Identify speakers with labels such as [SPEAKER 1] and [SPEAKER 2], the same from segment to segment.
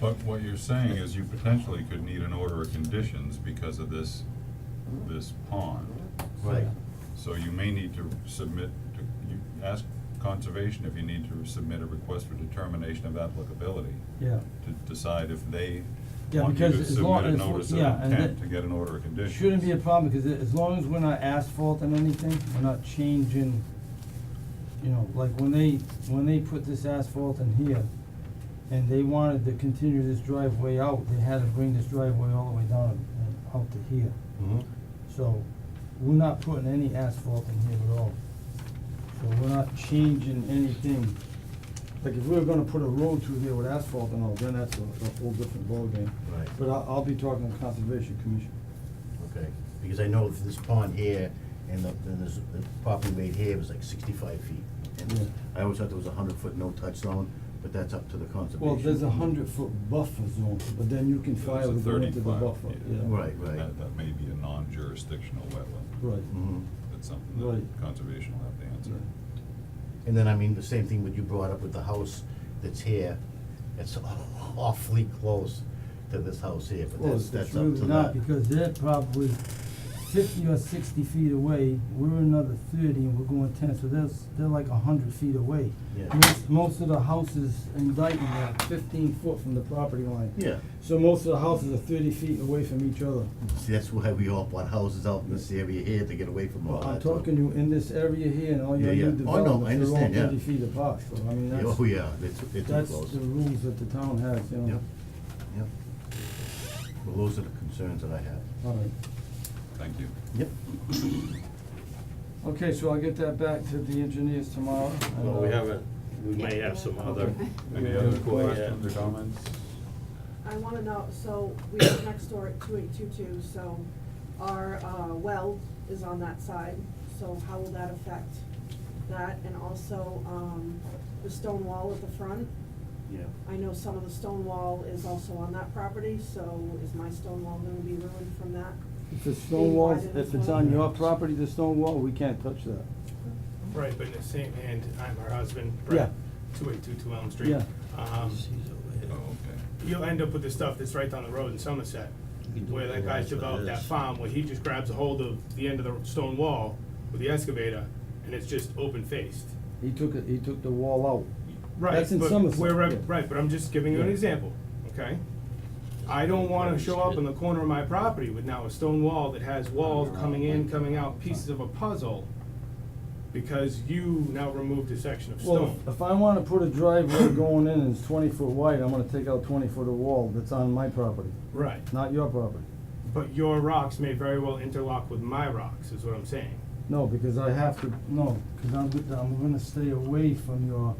[SPEAKER 1] But what you're saying is you potentially could need an order of conditions because of this, this pond.
[SPEAKER 2] Right.
[SPEAKER 1] So you may need to submit, to you ask conservation if you need to submit a request for determination of applicability
[SPEAKER 3] Yeah,
[SPEAKER 1] to decide if they
[SPEAKER 3] Yeah,
[SPEAKER 1] want you to
[SPEAKER 3] because as long-
[SPEAKER 1] submit a
[SPEAKER 3] as-
[SPEAKER 1] notice of
[SPEAKER 3] yeah, and
[SPEAKER 1] intent
[SPEAKER 3] that-
[SPEAKER 1] to get an order of conditions.
[SPEAKER 3] shouldn't be a problem, because as long as we're not asphalting anything, we're not changing, you know, like when they, when they put this asphalt in here, and they wanted to continue this driveway out, they had to bring this driveway all the way down and out to here.
[SPEAKER 2] Mhm.
[SPEAKER 3] So, we're not putting any asphalt in here at all. So we're not changing anything. Like if we were gonna put a road through there with asphalt and all, then that's a, a whole different ballgame.
[SPEAKER 2] Right.
[SPEAKER 3] But I, I'll be talking to Conservation Commission.
[SPEAKER 2] Okay, because I know this pond here and the, then this, the property right here was like sixty-five feet. And I always thought there was a hundred-foot no-touch zone, but that's up to the conservation.
[SPEAKER 3] Well, there's a hundred foot buffer zone, but then you can
[SPEAKER 1] There's a
[SPEAKER 3] file to go into the
[SPEAKER 1] 35,
[SPEAKER 3] buffer, yeah.
[SPEAKER 2] Right, right.
[SPEAKER 1] That, that may be a non-jurisdictional wetland.
[SPEAKER 3] Right,
[SPEAKER 2] Mhm.
[SPEAKER 1] That's something that
[SPEAKER 3] Right.
[SPEAKER 1] conservation will have to answer.
[SPEAKER 3] yeah,
[SPEAKER 2] And then, I mean, the same thing what you brought up with the house that's here, it's awfully close to this house here, but
[SPEAKER 3] well,
[SPEAKER 2] that's,
[SPEAKER 3] it's
[SPEAKER 2] that's up
[SPEAKER 3] really
[SPEAKER 2] to
[SPEAKER 3] not,
[SPEAKER 2] that.
[SPEAKER 3] because they're probably fifty or sixty feet away, we're another thirty and we're going ten, so there's, they're like a hundred feet away.
[SPEAKER 2] Yeah,
[SPEAKER 3] Most, most of the houses in Dayton are fifteen foot from the property line.
[SPEAKER 2] yeah,
[SPEAKER 3] So most of the houses are thirty feet away from each other.
[SPEAKER 2] see, that's why we all bought houses out in this area here to get away from all
[SPEAKER 3] Well,
[SPEAKER 2] that.
[SPEAKER 3] I'm
[SPEAKER 2] so-
[SPEAKER 3] talking you in this area here and all your
[SPEAKER 2] Yeah,
[SPEAKER 3] new
[SPEAKER 2] yeah. Oh, no, I
[SPEAKER 3] developments, they're all
[SPEAKER 2] understand, yeah.
[SPEAKER 3] thirty feet apart, so I mean,
[SPEAKER 2] Yeah,
[SPEAKER 3] that's.
[SPEAKER 2] Oh, yeah, it's, it's too
[SPEAKER 3] That's
[SPEAKER 2] close.
[SPEAKER 3] the rules that the town has, you know.
[SPEAKER 2] Yep, yep. Well, those are the concerns that I have.
[SPEAKER 3] All right.
[SPEAKER 1] Thank you.
[SPEAKER 2] Yep.
[SPEAKER 3] Okay, so I'll get that back to the engineers tomorrow. and,
[SPEAKER 4] Well, we
[SPEAKER 3] uh,
[SPEAKER 4] haven't, we may have some other.
[SPEAKER 1] Any
[SPEAKER 4] Yeah. Yeah.
[SPEAKER 1] other questions or comments?
[SPEAKER 5] I wanna know, so we live next door at two eight two two, so our, uh, well is on that side, so how will that affect that? And also, um, the stone wall at the front,
[SPEAKER 2] Yeah.
[SPEAKER 5] I know some of the stone wall is also on that property, so is my stone wall gonna be ruined from that?
[SPEAKER 3] If the stone wall, if it's on your property, the stone wall, we can't touch that.
[SPEAKER 6] Right, but in the same hand, I'm her husband, Brett, two eight two two Elm Street.
[SPEAKER 3] Yeah.
[SPEAKER 6] Um,
[SPEAKER 1] Oh, okay.
[SPEAKER 6] you'll end up with the stuff that's right down the road in Somerset, where that guy took out that farm, where he just grabs a hold of the end of the stone wall with the excavator, and it's just open faced.
[SPEAKER 3] He took it, he took the wall
[SPEAKER 6] Right,
[SPEAKER 3] That's in
[SPEAKER 6] but
[SPEAKER 3] Somerset,
[SPEAKER 6] where I-
[SPEAKER 3] yeah.
[SPEAKER 6] Right, but I'm just giving you an
[SPEAKER 3] Yeah.
[SPEAKER 6] example, okay? I don't wanna show up in the corner of my property with now a stone wall that has walls coming in, coming out, pieces of a puzzle, because you now removed a section of
[SPEAKER 3] out.
[SPEAKER 6] stone.
[SPEAKER 3] Well, if- if I wanna put a driveway going in and it's twenty foot wide, I'm gonna take out twenty foot of wall that's on my property,
[SPEAKER 6] Right,
[SPEAKER 3] not your property.
[SPEAKER 6] but your rocks may very well interlock with my rocks, is what I'm saying.
[SPEAKER 3] No, because I have to, no, because I'm, go- I'm gonna stay away from your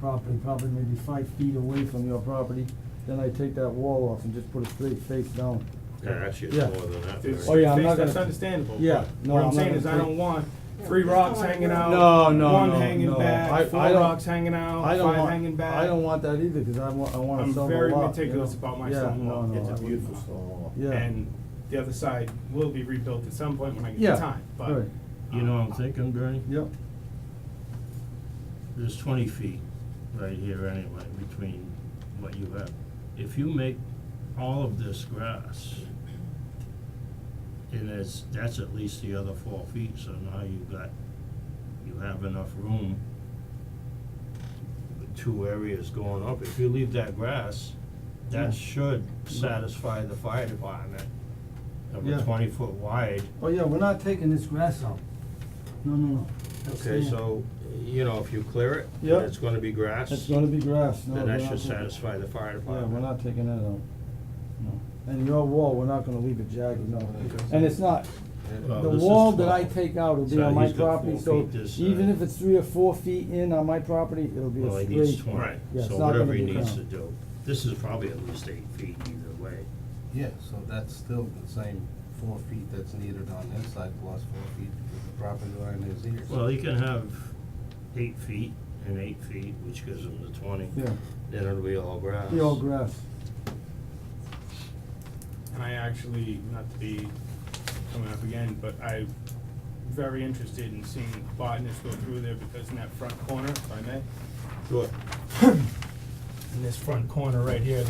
[SPEAKER 3] property, probably maybe five feet away from your property. Then I take that wall off and just put a straight face down.
[SPEAKER 4] Actually,
[SPEAKER 3] Yeah.
[SPEAKER 4] it's more than that.
[SPEAKER 6] It's-
[SPEAKER 3] Oh, yeah, I'm
[SPEAKER 6] that's-
[SPEAKER 3] not
[SPEAKER 6] That's
[SPEAKER 3] gonna-
[SPEAKER 6] understandable.
[SPEAKER 3] Yeah,
[SPEAKER 6] but
[SPEAKER 3] no,
[SPEAKER 6] What
[SPEAKER 3] I'm
[SPEAKER 6] I'm
[SPEAKER 3] not
[SPEAKER 6] saying is
[SPEAKER 3] gonna
[SPEAKER 6] I
[SPEAKER 3] take-
[SPEAKER 6] don't want three
[SPEAKER 5] Yeah,
[SPEAKER 6] rocks
[SPEAKER 5] that's not
[SPEAKER 6] hanging
[SPEAKER 5] right.
[SPEAKER 6] out.
[SPEAKER 3] No, no,
[SPEAKER 6] One
[SPEAKER 3] no,
[SPEAKER 6] hanging
[SPEAKER 3] no. I- I
[SPEAKER 6] back, four
[SPEAKER 3] don't-
[SPEAKER 6] rocks hanging out,
[SPEAKER 3] I don't
[SPEAKER 6] five
[SPEAKER 3] want,
[SPEAKER 6] hanging back.
[SPEAKER 3] I don't want that either, because I want, I wanna
[SPEAKER 6] I'm
[SPEAKER 3] sell the lot.
[SPEAKER 6] very
[SPEAKER 3] you
[SPEAKER 6] meticulous
[SPEAKER 3] know?
[SPEAKER 6] about my stone wall.
[SPEAKER 3] Yeah, no,
[SPEAKER 2] It's
[SPEAKER 3] no, I
[SPEAKER 2] a
[SPEAKER 3] wouldn't.
[SPEAKER 2] beautiful stone wall.
[SPEAKER 3] Yeah.
[SPEAKER 6] And the other side will be rebuilt at some point when I
[SPEAKER 3] Yeah,
[SPEAKER 6] get the time, but.
[SPEAKER 3] right.
[SPEAKER 7] You know what I'm
[SPEAKER 6] um,
[SPEAKER 7] thinking, Bernie?
[SPEAKER 3] Yep,
[SPEAKER 7] There's twenty feet right here anyway, between what you have. If you make all of this grass, and it's, that's at least the other four feet, so now you've got, you have enough room with two areas going up. If you leave that grass,
[SPEAKER 3] Yeah.
[SPEAKER 7] that should satisfy the fire department of
[SPEAKER 3] Yeah.
[SPEAKER 7] a twenty foot wide.
[SPEAKER 3] oh yeah, we're not taking this grass out. No, no, no. That's
[SPEAKER 4] Okay,
[SPEAKER 3] staying.
[SPEAKER 7] So, you know, if you clear it,
[SPEAKER 3] Yep.
[SPEAKER 7] and it's gonna be grass.
[SPEAKER 3] It's gonna be grass, no,
[SPEAKER 7] Then
[SPEAKER 3] we're
[SPEAKER 7] that
[SPEAKER 3] not
[SPEAKER 7] should
[SPEAKER 3] taking-
[SPEAKER 7] satisfy the fire
[SPEAKER 3] Yeah,
[SPEAKER 7] department.
[SPEAKER 3] we're not taking that out, no. And your wall, we're not gonna leave it jagged, no. And it's not,
[SPEAKER 7] Well,
[SPEAKER 3] the
[SPEAKER 7] this is
[SPEAKER 3] wall that I
[SPEAKER 7] 12.
[SPEAKER 3] take out will be
[SPEAKER 7] So
[SPEAKER 3] on my
[SPEAKER 7] he's got
[SPEAKER 3] property,
[SPEAKER 7] four
[SPEAKER 3] so
[SPEAKER 7] feet this
[SPEAKER 3] even
[SPEAKER 7] side.
[SPEAKER 3] if it's three or four feet in on my property, it'll be
[SPEAKER 7] Well,
[SPEAKER 3] a
[SPEAKER 7] he needs
[SPEAKER 3] straight.
[SPEAKER 7] twenty,
[SPEAKER 6] Right.
[SPEAKER 3] Yeah, it's not
[SPEAKER 7] so
[SPEAKER 3] gonna
[SPEAKER 7] whatever he
[SPEAKER 3] be
[SPEAKER 7] needs to
[SPEAKER 3] ground.
[SPEAKER 7] do. This is probably at least eight feet either way.
[SPEAKER 8] Yeah, so that's still the same four feet that's needed on this side plus four feet because the property line is here.
[SPEAKER 7] Well, he can have eight feet and eight feet, which gives him the twenty.
[SPEAKER 3] Yeah,
[SPEAKER 7] Then it'll be all grass.
[SPEAKER 3] be all grass.
[SPEAKER 6] And I actually, not to be coming up again, but I'm very interested in seeing botanists go through there because in that front corner, if I may.
[SPEAKER 7] Sure.
[SPEAKER 6] In this front corner right here,